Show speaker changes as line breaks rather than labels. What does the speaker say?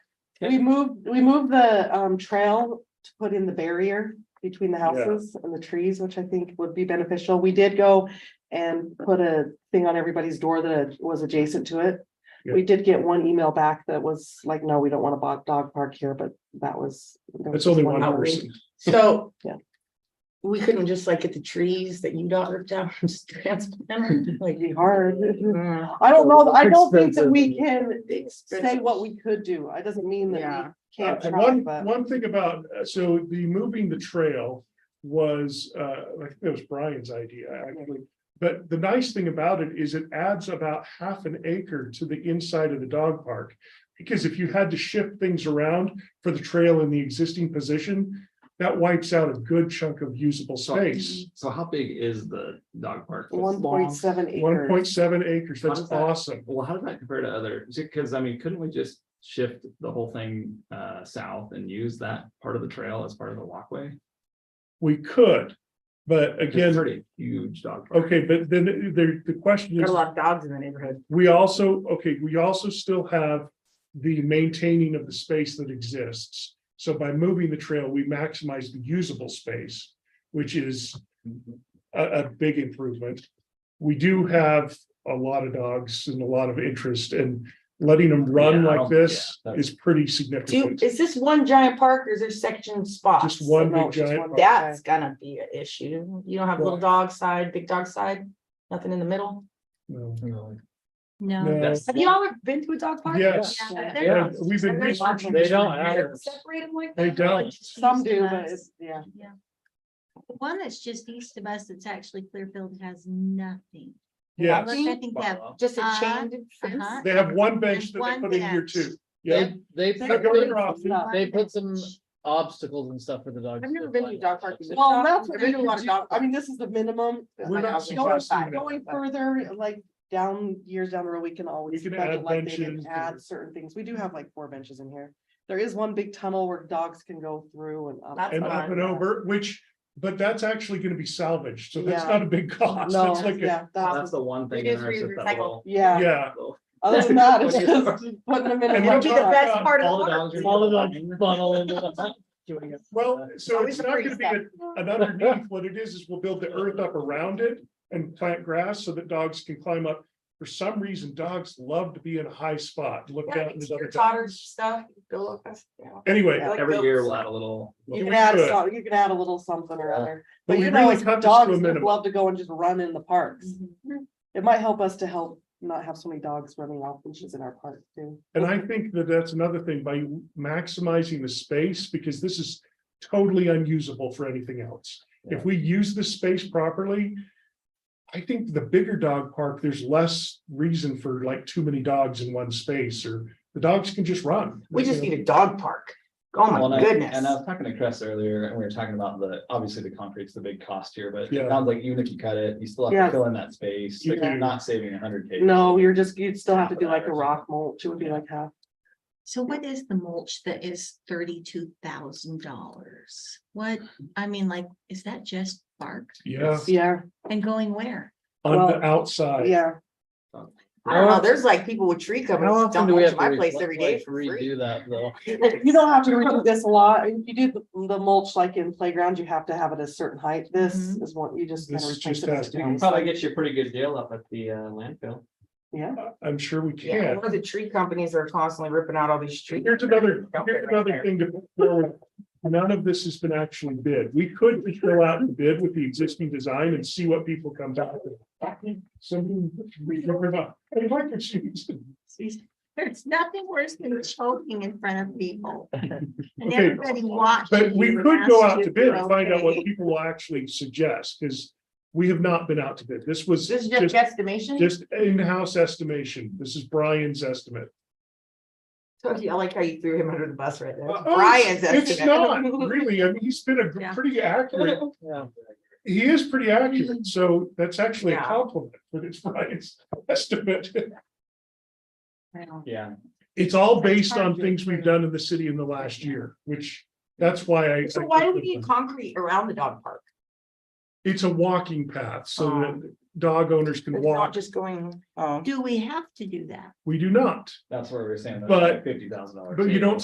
We moved, we moved the um trail to put in the barrier between the houses and the trees, which I think would be beneficial. We did go. And put a thing on everybody's door that was adjacent to it. We did get one email back that was like, no, we don't want a bo- dog park here, but that was. there was
That's only
just
one person.
So.
Yeah.
We couldn't just like get the trees that you got ripped down and just transplant them, like.
It'd be hard.
mm,
I don't know, I don't think that we can Mm-hmm. say
Expensive.
what we could do. I doesn't mean
Yeah.
that we
Uh,
can't
and
try,
One,
but
one thing about, uh, so the moving the trail was, uh, I think that was Brian's idea, actually. But the nice thing about it is it adds about half an acre to the inside of the dog park. Because if you had to shift things around for the trail in the existing position, that wipes out a good chunk of usable
So-
space.
So how big is the dog park?
one point seven
One point
acres.
seven acres, that's
How's that?
awesome.
Well, how does that compare to other, because I mean, couldn't we just shift the whole thing uh south and use that part of the trail as part of the walkway? 'Cause
We could, but
it's
again,
already a Huge dog. park.
okay, but then there, the question is.
Got a lot of dogs in the neighborhood.
We also, okay, we also still have the maintaining of the space that exists. So by moving the trail, we maximize the usable space, which is a, a big improvement. We do have a lot of dogs and a lot of interest and letting them run
Yeah, I
like
don't-
this
yeah,
is pretty
Do, you-
significant.
is this one giant park or is there section spots?
Just one
No,
big
it's just
giant,
one
park.
big-
That's gonna be an issue. You don't have little
Why?
dog side, big dog side, nothing in the middle.
no,
No.
no,
That's-
Have you all been to a dog park?
yes.
Yeah.
They're-
Yeah, we've been
they're
researching.
like-
this for years.
Separate them like.
They
that, like
don't.
she's
Some do,
left.
but it's, yeah.
The One that's just east of us, that's actually Clearfield has nothing.
Yeah,
Like, I think that,
Just a
Uh,
chain fence.
uh-huh.
they have one bench that
There's
they
one
put in here
bench.
too. Yeah,
They, they,
They're
put-
going
they-
off.
they put some obstacles and stuff for the dogs.
I've never been to a dog park.
Well, that's what
I've been
we
to a
could
lot of
do.
dog
I mean, this is the minimum.
We're
like,
not
going
suggesting
back-
that.
Going further, like down years down the road, we can always.
We can
budget
add
like they did,
benches or-
Add certain things. We do have like four benches in here. There is one big tunnel where dogs can go through and. up.
That's
and up
fine.
and over, which, but that's actually gonna be salvaged, so that's
Yeah.
not a big cost,
No,
that's like, a
yeah,
That's
that's,
the one thing.
Reduce,
there is that
reuse,
that
recycle.
little-
yeah,
yeah.
little-
other than that, it's
Okay.
just putting them in.
And
a
we're
That'd
bunch
be
of
the
boxes.
talking
best
about
part of
All the
the park.
dogs. are
All the
lying.
dogs funnel into the- doing it.
Well, so
Always
it's not gonna
freeze
be an an underneath, what it is, is we'll build the earth up around it and plant grass so that dogs can climb up. For some reason, dogs love to be in a high spot, look
Yeah,
down. at
it's
other
Your
dogs.
totters stuff, go look, that's- yeah.
Anyway,
like
Every
those.
year we'll add a little.
You
we
can add,
could.
some- you can add a little something or other,
but
but
we
you know,
really
it's
cut this to a
dogs that
minimum.
love to go and just run in the parks.
Mm-hmm.
It might help us to help not have so many dogs running off benches in our park too.
And I think that that's another thing, by maximizing the space, because this is totally unusable for anything else. If we use the space properly. I think the bigger dog park, there's less reason for like too many dogs in one space, or the dogs can just run.
We just need a dog park. Oh
Well,
my
and I-
goodness.
And I was talking to Chris earlier, and we were talking about the, obviously the concrete's the big cost here, but
Yeah.
it sounds like even if you cut it, you still have
Yeah.
to fill in that space,
You
like you're
do.
not saving a hundred K.
No, you're just, you'd still have to
Half
do
an
like
hour
a
or
rock mulch, it would be like half.
So what is the mulch that is thirty-two thousand dollars? What, I mean, like, is that just bark
Yeah,
Yeah,
and going where?
on
Well,
the outside.
yeah,
I don't know, there's like people with tree
How
covers
often do
dumping
we have
into
to
my place every day
replace-
for free.
redo that though?
you don't have to redo this a lot, If you do the- the mulch like in playground, you have to have it a certain height, this
Mm-hmm.
Mhm.
is what you just. kinda
This is
replace
just
it as it
asking.
goes.
Probably gets you a pretty good deal up at the uh landfill.
Yeah,
I'm sure we
Yeah,
can.
one of the tree companies are constantly ripping out all these trees.
Here's another,
Dump it
here's
right
another
there.
thing to, put forward. none of this has been actually bid. We could just go out and bid with the existing design and see what people come back with. Something we don't remember. I like your shoes.
There's nothing worse than choking in front of people. And
Okay,
everybody watching.
But we
you and
could go
asking
out
if
to bid
you're
and find out what
okay.
people will actually suggest, because we have not been out to bid. This was
This is
just,
just estimation.
just in-house estimation. This is Brian's estimate.
I like how you threw him under the bus right there.
Uh, oh,
Brian's estimate.
It's not really, I mean, he's been a gr-
Yeah.
pretty accurate
Yeah.
He is pretty accurate, so that's actually a
Mm. Yeah.
compliment, but it's Brian's estimate.
Well,
Yeah.
It's all
That's
based
hard
on
to
things we've
explain.
done in the city in the last year, which that's why I.
So why do we need concrete around the dog park?
It's a walking path so that dog owners can
Um, It's not
walk.
just going, um.
Do we have to do that?
We do not.
That's where we were saying.
But-
Fifty thousand dollars.
but you don't